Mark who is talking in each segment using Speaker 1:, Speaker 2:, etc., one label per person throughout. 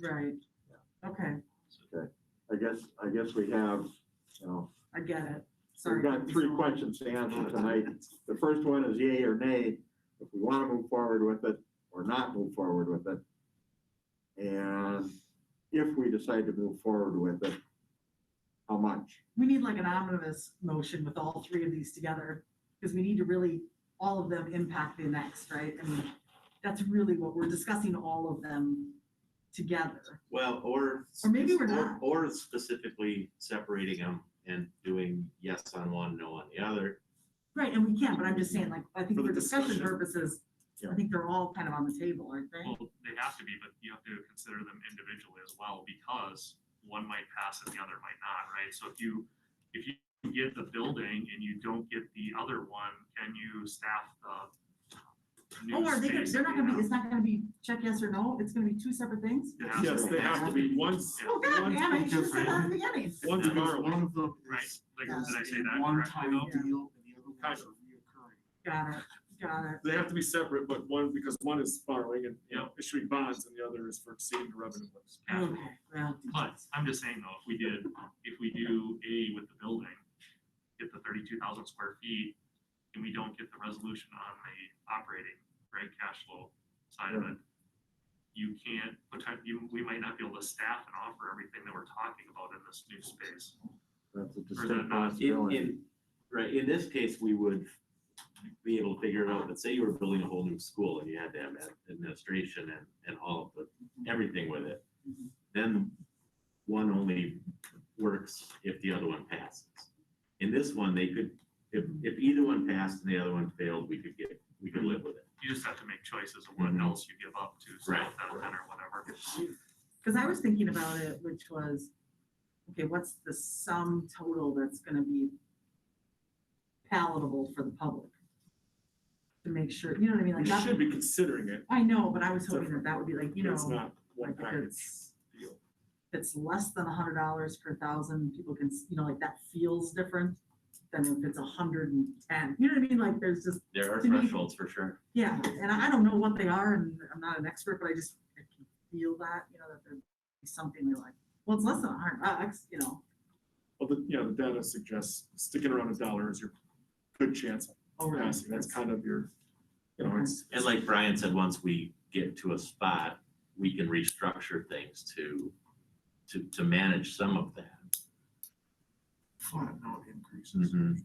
Speaker 1: Right. Okay,
Speaker 2: Okay, I guess, I guess we have, you know,
Speaker 1: I get it. Sorry.
Speaker 2: we've got three questions to answer tonight. The first one is yay or nay, if we want to move forward with it or not move forward with it. And if we decide to move forward with it, how much?
Speaker 1: We need like an omnibus motion with all three of these together, because we need to really, all of them impact the next, right? I mean, that's really what, we're discussing all of them together.
Speaker 3: Well, or.
Speaker 1: Or maybe we're
Speaker 3: or-
Speaker 1: not.
Speaker 3: Or specifically separating them and doing yes on one, no on the other.
Speaker 1: Right, and we can, but I'm just saying, like, I think
Speaker 3: For the
Speaker 1: for discussion
Speaker 3: discussion.
Speaker 1: purposes, I
Speaker 2: Yeah.
Speaker 1: think they're all kind of on the table, aren't they?
Speaker 4: Well, they have to be, but you have to consider them individually as well, because one might pass and the other might not, right? So if you, if you get the building and you don't get the other one, can you staff the new
Speaker 1: Oh, are they, gonna-
Speaker 4: space?
Speaker 1: they're not
Speaker 4: that
Speaker 1: gonna be,
Speaker 4: we
Speaker 1: it's not gonna be check yes or no, it's gonna be two separate things?
Speaker 4: have?
Speaker 2: Yes, they have to
Speaker 4: be.
Speaker 5: Once,
Speaker 1: Oh, God,
Speaker 5: One's
Speaker 1: damn, I should've said that
Speaker 5: different.
Speaker 1: in the beginning.
Speaker 5: once
Speaker 4: Yeah.
Speaker 5: bar, one of them
Speaker 4: Right,
Speaker 5: is
Speaker 4: like,
Speaker 1: Yeah.
Speaker 4: did I say
Speaker 5: a
Speaker 4: that correctly
Speaker 5: one-time
Speaker 4: though?
Speaker 5: deal and the other one's Kind a reoccurring.
Speaker 1: Got it, got it.
Speaker 5: They have to be separate, but one, because one is borrowing and, you know, issuing bonds and the other is for exceeding the revenue limits.
Speaker 4: Yeah.
Speaker 1: Okay, well.
Speaker 4: But I'm just saying though, if we did, if we do A with the building, get the thirty-two thousand square feet, and we don't get the resolution on the operating, right, cash flow side of it, you can't, potent- you, we might not be able to staff and offer everything that we're talking about in this new space.
Speaker 2: That's a
Speaker 4: Or they're
Speaker 2: distinct
Speaker 4: not-
Speaker 3: In,
Speaker 2: possibility.
Speaker 3: in, right, in this case, we would be able to figure it out, but say you were building a whole new school and you had to have ad- administration and, and all of
Speaker 1: Mm-hmm.
Speaker 3: the, everything with it. Then one only works if the other one passes. In this one, they could, if, if either one passed and the other one failed, we could get, we could live with it.
Speaker 4: You just have to make choices of what
Speaker 3: Mhm.
Speaker 4: else you give up to staff
Speaker 3: Right.
Speaker 4: that event or whatever.
Speaker 1: Because I was thinking about it, which was, okay, what's the sum total that's gonna be palatable for the public? To make sure, you know what I mean,
Speaker 5: We
Speaker 1: like,
Speaker 5: should
Speaker 1: not-
Speaker 5: be considering it,
Speaker 1: I know, but I was hoping that that would be like, you
Speaker 5: but it's
Speaker 1: know,
Speaker 5: not one
Speaker 1: like if
Speaker 5: package
Speaker 1: it's,
Speaker 5: deal.
Speaker 1: if it's less than a hundred dollars per thousand, people can, s- you know, like that feels different than if it's a hundred and ten, you know what I mean, like, there's just,
Speaker 3: There are
Speaker 1: To me-
Speaker 3: thresholds for sure.
Speaker 1: yeah, and I I don't know what they are, and I'm not an expert, but I just I can feel that, you know, that there'd be something you're like, well, it's less than a hundred bucks, you know,
Speaker 5: Well, the, you know, the data suggests sticking around a dollar is your good chance of
Speaker 1: over.
Speaker 5: passing. That's kind of your, you know, it's.
Speaker 3: And like Brian said, once we get to a spot, we can restructure things to, to, to manage some of that.
Speaker 5: Flat out increases.
Speaker 3: Mhm.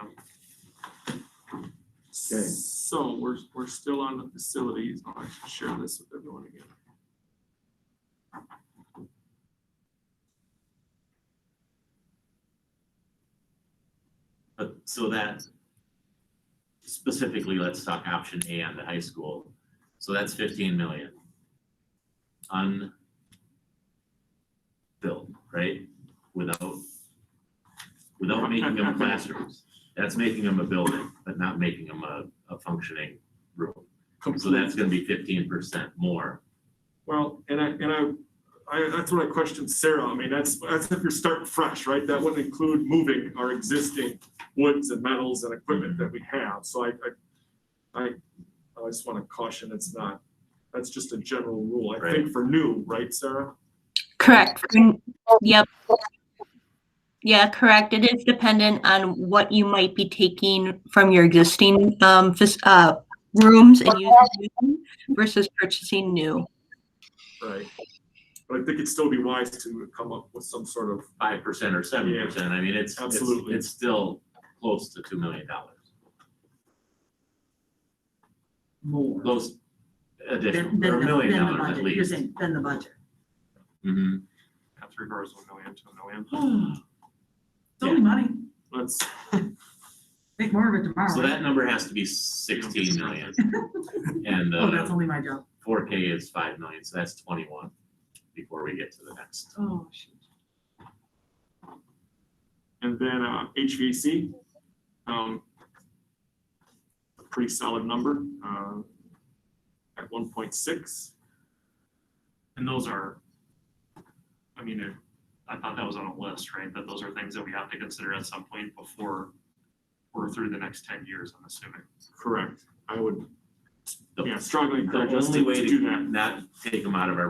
Speaker 4: Um,
Speaker 2: Okay.
Speaker 5: So we're, we're still on the facilities. I'll actually share this with everyone again.
Speaker 3: But so that specifically, let's talk option A on the high school. So that's fifteen million. Unbuilt, right? Without, without making them classrooms. That's making them a building, but not making them a, a functioning room. So that's gonna be fifteen percent more.
Speaker 5: Well, and I, and I, I, that's what I questioned Sarah. I mean, that's, that's if you're starting fresh, right? That wouldn't include moving our existing woods and metals and equipment that we have. So I, I, I, I just want to caution, it's not, that's just a general rule, I think, for new, right, Sarah?
Speaker 6: Correct. Mm, Yep. Yeah, correct. It is dependent on what you might be taking from your existing um fis- uh rooms and using them versus purchasing new.
Speaker 5: Right. But I think it'd still be wise to come up with some sort of,
Speaker 3: five percent or seven percent, I mean, it's, it's-
Speaker 5: Absolutely.
Speaker 3: it's still close to two million dollars.
Speaker 1: More.
Speaker 3: Those additional,
Speaker 1: Than, than
Speaker 3: or a
Speaker 1: the-
Speaker 3: million
Speaker 1: than the
Speaker 3: dollars at
Speaker 1: budget, You're
Speaker 3: least.
Speaker 1: saying, than the budget.
Speaker 3: Mhm.
Speaker 4: Have three quarters of a million to a million.
Speaker 1: It's only money,
Speaker 5: let's,
Speaker 1: make more of it tomorrow.
Speaker 3: So that number has to be
Speaker 4: You don't get
Speaker 3: sixteen million,
Speaker 4: discounted.
Speaker 3: and
Speaker 1: Oh, that's
Speaker 3: uh
Speaker 1: only my job.
Speaker 3: four K is five million, so that's twenty-one before we get to the next.
Speaker 1: Oh, shoot.
Speaker 5: and then uh, HVAC. um, a Pretty solid number, uh, at one point six.
Speaker 4: And those are, I mean, it- I thought that was on a list, right? That those are things that we have to consider at some point before we're through the next ten years, I'm assuming.
Speaker 5: Correct. I would
Speaker 3: the-
Speaker 5: Yeah, struggling
Speaker 3: The
Speaker 5: criminals to
Speaker 3: only way
Speaker 5: to do that.
Speaker 3: to not take them out of our